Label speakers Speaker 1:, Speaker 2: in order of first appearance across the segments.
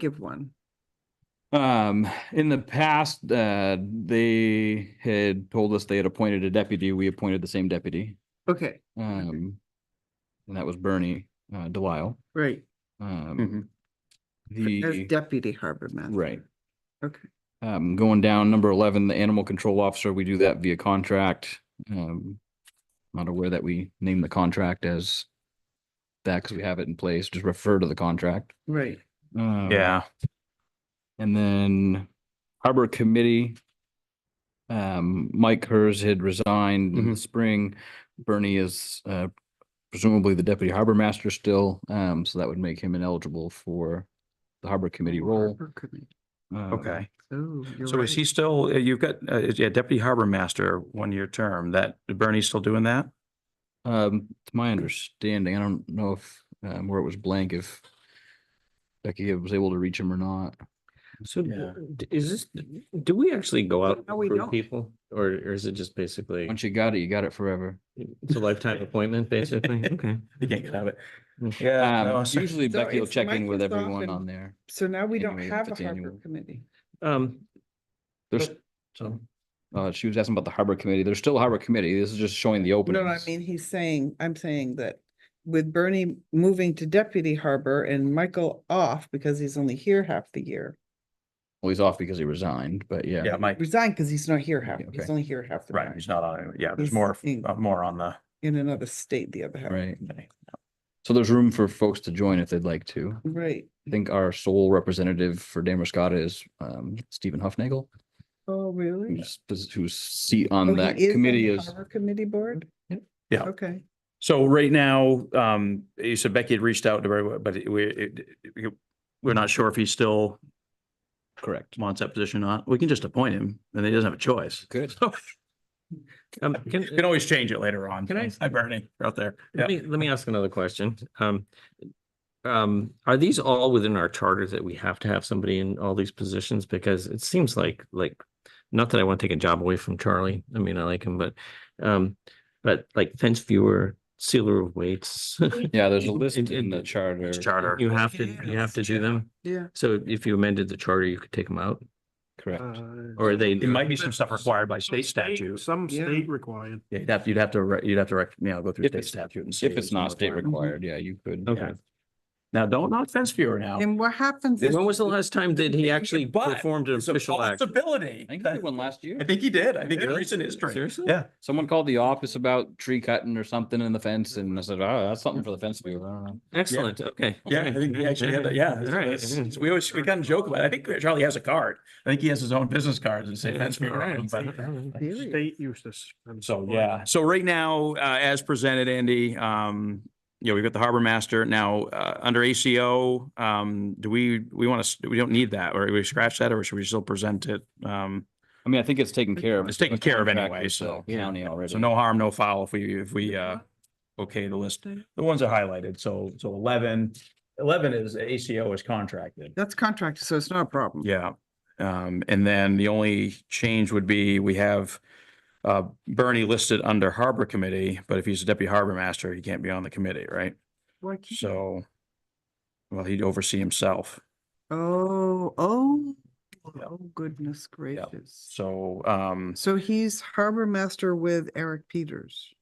Speaker 1: give one?
Speaker 2: Um, in the past, uh, they had told us they had appointed a deputy. We appointed the same deputy.
Speaker 1: Okay,
Speaker 2: Um, and that was Bernie, uh, Delisle.
Speaker 1: right,
Speaker 2: Um,
Speaker 1: as
Speaker 2: the,
Speaker 1: deputy harbor master.
Speaker 2: right.
Speaker 1: Okay,
Speaker 2: Um, going down, number eleven, the animal control officer, we do that via contract. Um, not aware that we name the contract as that because we have it in place, just refer to the contract.
Speaker 1: right,
Speaker 2: Um,
Speaker 3: Yeah,
Speaker 2: And then Harbor Committee. Um, Mike Hers had resigned in the spring. Bernie is uh presumably the deputy harbor master still. Um, so that would make him ineligible for the harbor committee
Speaker 1: Oh,
Speaker 2: role.
Speaker 1: harbor committee.
Speaker 2: Um,
Speaker 3: okay.
Speaker 1: So you're
Speaker 3: So is
Speaker 1: right.
Speaker 3: he still, uh, you've got, uh, yeah, deputy harbor master, one-year term, that, Bernie's still doing that?
Speaker 2: Um, to my understanding, I don't know if um where it was blank, if Becky was able to reach him or not.
Speaker 4: So d-
Speaker 3: Yeah.
Speaker 4: d- is this, do we actually go out and
Speaker 1: No, we don't.
Speaker 4: recruit people? Or or is it just basically,
Speaker 2: Once you got it, you got it forever.
Speaker 4: it's a lifetime appointment, basically? Okay.
Speaker 3: You can't get out of
Speaker 4: Mm.
Speaker 3: it. Yeah. no,
Speaker 2: Um,
Speaker 3: so-
Speaker 2: usually
Speaker 1: So
Speaker 2: Becky will
Speaker 1: it's
Speaker 2: check in with
Speaker 1: Microsoft
Speaker 2: everyone
Speaker 1: and-
Speaker 2: on there.
Speaker 1: So now we don't
Speaker 2: anyway, if
Speaker 1: have a
Speaker 2: it's
Speaker 1: harbor
Speaker 2: annual.
Speaker 1: committee.
Speaker 4: Um,
Speaker 2: There's
Speaker 4: but- so,
Speaker 2: Uh, she was asking about the harbor committee. There's still a harbor committee. This is just showing the
Speaker 1: No,
Speaker 2: openings.
Speaker 1: no, I mean, he's saying, I'm saying that with Bernie moving to deputy harbor and Michael off because he's only here half the year.
Speaker 2: Well, he's off because he resigned, but yeah.
Speaker 3: Yeah, Mike,
Speaker 1: Resigned because he's not here half,
Speaker 2: Yeah,
Speaker 1: he's
Speaker 2: okay.
Speaker 1: only here half the
Speaker 3: right,
Speaker 1: time,
Speaker 3: he's not on, it. yeah, there's
Speaker 1: He's
Speaker 3: more,
Speaker 1: in-
Speaker 3: uh, more on the.
Speaker 1: in another state the other half.
Speaker 2: Right. So there's room for folks to join if they'd like to.
Speaker 1: Right,
Speaker 2: I think our sole representative for Damascotta is um Stephen Huffnagel,
Speaker 1: oh, really?
Speaker 2: whose pos- whose seat
Speaker 1: Oh,
Speaker 2: on
Speaker 1: he
Speaker 2: that
Speaker 1: is on
Speaker 2: committee
Speaker 1: the
Speaker 2: is.
Speaker 1: harbor Committee board?
Speaker 2: Yep.
Speaker 3: Yeah.
Speaker 1: Okay,
Speaker 3: So right now, um, you said Becky had reached out to, her, but it- we, it- it- we're not sure if he still
Speaker 2: Correct.
Speaker 3: wants that position or not. We can just appoint him and he doesn't have a choice.
Speaker 2: Good.
Speaker 4: um,
Speaker 3: You
Speaker 4: can,
Speaker 3: Can always change it later on.
Speaker 4: Can I-
Speaker 3: Hi Bernie, You're out there. Yeah.
Speaker 4: let me, let me ask another question. Um, um, are these all within our charter that we have to have somebody in all these positions? Because it seems like, like, not that I want to take a job away from Charlie. I mean, I like him, but um, but like fence viewer, sealer of weights.
Speaker 2: Yeah, there's a list
Speaker 4: It- it-
Speaker 2: in the charter.
Speaker 3: Charter.
Speaker 4: You have to, you have to do them.
Speaker 1: yeah.
Speaker 4: So if you amended the charter, you could take them out
Speaker 2: Correct.
Speaker 4: or they.
Speaker 3: It might be some stuff required by state statute.
Speaker 5: Some
Speaker 1: Yeah.
Speaker 5: state required.
Speaker 3: Yeah, you'd have, you'd have to, re- you'd have to, rec- you know, go through
Speaker 2: If
Speaker 3: state
Speaker 2: it's-
Speaker 3: statute and. see
Speaker 2: If it's not state required,
Speaker 3: requirement.
Speaker 2: yeah, you could.
Speaker 4: Okay.
Speaker 3: Now, don't not fence viewer now.
Speaker 1: And what happens? if-
Speaker 4: When was the last time that he actually
Speaker 3: But
Speaker 4: performed an
Speaker 3: It's a
Speaker 4: official act?
Speaker 3: possibility.
Speaker 2: I think I
Speaker 3: That-
Speaker 2: did one last year.
Speaker 3: I think he did. I think in
Speaker 4: Really?
Speaker 3: recent history.
Speaker 4: Seriously?
Speaker 3: Yeah.
Speaker 2: Someone called the office about tree cutting or something in the fence and I said, oh, that's something for the fence viewer. I don't know.
Speaker 4: Excellent, okay.
Speaker 3: Yeah, I think we actually had that. Yeah. it's- it's- it's- We always, we kind of joke about it. I think Charlie has a card. I think he has his own business cards and say fence viewer. on them, but-
Speaker 1: Really?
Speaker 5: State used to. s- and
Speaker 3: So,
Speaker 5: so-
Speaker 3: yeah, so right now, uh, as presented, Andy, um, you know, we've got the harbor master now, uh, under ACO, um, do we, we want to, we don't need that, or we scratch that, or should we still present it? Um,
Speaker 2: I mean, I think it's taken care of.
Speaker 3: It's taken
Speaker 2: The
Speaker 3: care of
Speaker 2: contract
Speaker 3: anyway,
Speaker 2: with the
Speaker 3: so,
Speaker 4: yeah.
Speaker 2: County already.
Speaker 3: so no harm, no foul if we, if we, uh, okay the list. The ones are highlighted, so, so eleven, eleven is ACO is contracted.
Speaker 1: That's contracted, so it's not a problem.
Speaker 3: Yeah, um, and then the only change would be we have uh, Bernie listed under Harbor Committee, but if he's a deputy harbor master, he can't be on the committee, right?
Speaker 1: Why can't-
Speaker 3: So, well, he'd oversee himself.
Speaker 1: Oh, oh,
Speaker 3: Yeah.
Speaker 1: oh goodness gracious.
Speaker 3: So, um,
Speaker 1: So he's harbor master with Eric Peters.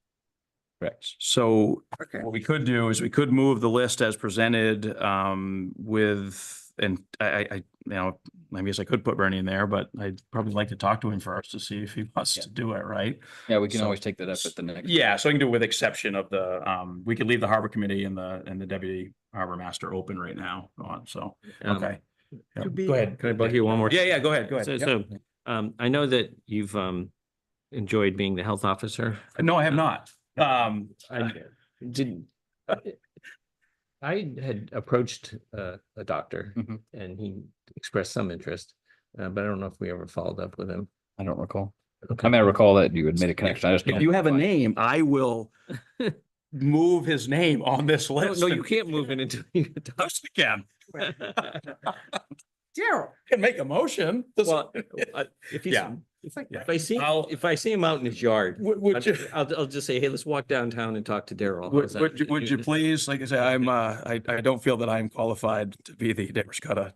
Speaker 3: correct. So
Speaker 1: Okay.
Speaker 3: what we could do is we could move the list as presented, um, with, and I, I, I, you know, I guess I could put Bernie in there, but I'd probably like to talk to him first to see if he wants to do it, right?
Speaker 2: Yeah, we can
Speaker 3: So-
Speaker 2: always take that up at the next.
Speaker 3: Yeah, so I can do with exception of the, um, we could leave the harbor committee and the, and the deputy harbor master open right now on, so,
Speaker 4: Um,
Speaker 3: okay. Yeah,
Speaker 1: To be-
Speaker 3: Go ahead.
Speaker 4: Can I bug you one more?
Speaker 3: Yeah, yeah, go ahead, go
Speaker 4: So,
Speaker 3: ahead. Yep.
Speaker 4: so, um, I know that you've, um, enjoyed being the health officer.
Speaker 3: No, I have not. Um,
Speaker 4: I did. I had approached, uh, a doctor
Speaker 3: Mm-hmm.
Speaker 2: Mhm.
Speaker 4: and he expressed some interest, uh, but I don't know if we ever followed up with him.
Speaker 2: I don't recall. I
Speaker 4: Okay.
Speaker 2: mean, I recall that you had made a connection. I just.
Speaker 3: if
Speaker 2: don't-
Speaker 3: you have a name, I will move his name on this
Speaker 4: No,
Speaker 3: list.
Speaker 4: no, you can't move it until you. get
Speaker 3: Of course I can.
Speaker 4: doctor.
Speaker 1: Daryl,
Speaker 3: Can make a motion. This-
Speaker 4: Well, I- If he's,
Speaker 3: Yeah.
Speaker 4: if I-
Speaker 3: Yeah.
Speaker 4: if I see,
Speaker 3: I'll-
Speaker 4: if I see him out in his yard,
Speaker 3: Would, would you,
Speaker 4: I'd- I'll, I'll just say, hey, let's walk downtown and talk to Daryl. How's
Speaker 3: would,
Speaker 4: that?
Speaker 3: uh, would you, would you please, like I say, I'm, uh, I, I don't feel that I'm qualified to be the Damerscott